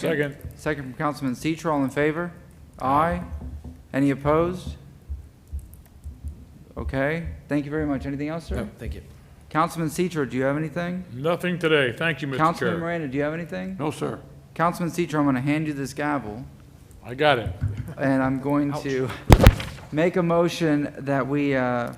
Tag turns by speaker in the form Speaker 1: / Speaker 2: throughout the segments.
Speaker 1: Second.
Speaker 2: Second from Councilman Citro, all in favor? Aye. Any opposed? Okay, thank you very much. Anything else, sir?
Speaker 3: No, Oh, thank you.
Speaker 2: Councilman Citro, do you have anything?
Speaker 1: Nothing today. Thank you, Mr.
Speaker 2: Councilman
Speaker 1: Chair.
Speaker 2: Miranda, do you have anything?
Speaker 1: No, sir.
Speaker 2: Councilman Citro, I'm going to hand you this gavel,
Speaker 1: I got it.
Speaker 2: and I'm going to make a motion that we, uh,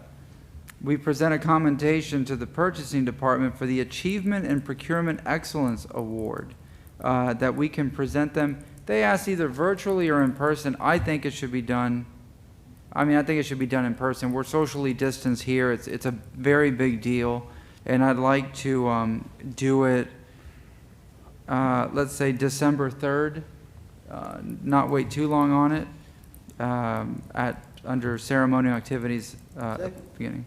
Speaker 2: we present a commendation to the purchasing department for the Achievement and Procurement Excellence Award, uh, that we can present them. They asked either virtually or in person. I think it should be done, I mean, I think it should be done in person. We're socially distanced here. It's, it's a very big deal. And I'd like to um, do it, uh, let's say, December 3rd, uh, not wait too long on it, um, at, under ceremonial activities uh, at the beginning.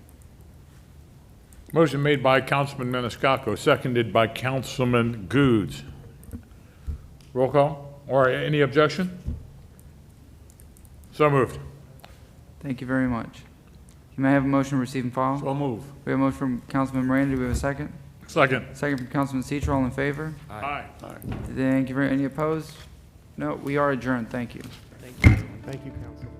Speaker 1: Motion made by Councilman Maniscalco, seconded by Councilman Goode. Roll call, or any objection? So moved.
Speaker 2: Thank you very much. You may I have a motion to receive and file.
Speaker 1: moved.
Speaker 2: We have a motion from Councilman Miranda. Do we have a second?
Speaker 1: Second.
Speaker 2: Second from Councilman Citro. All in favor?
Speaker 1: Aye.
Speaker 2: Thank you. very Any opposed? No, we are adjourned. Thank you.
Speaker 4: Thank you, council.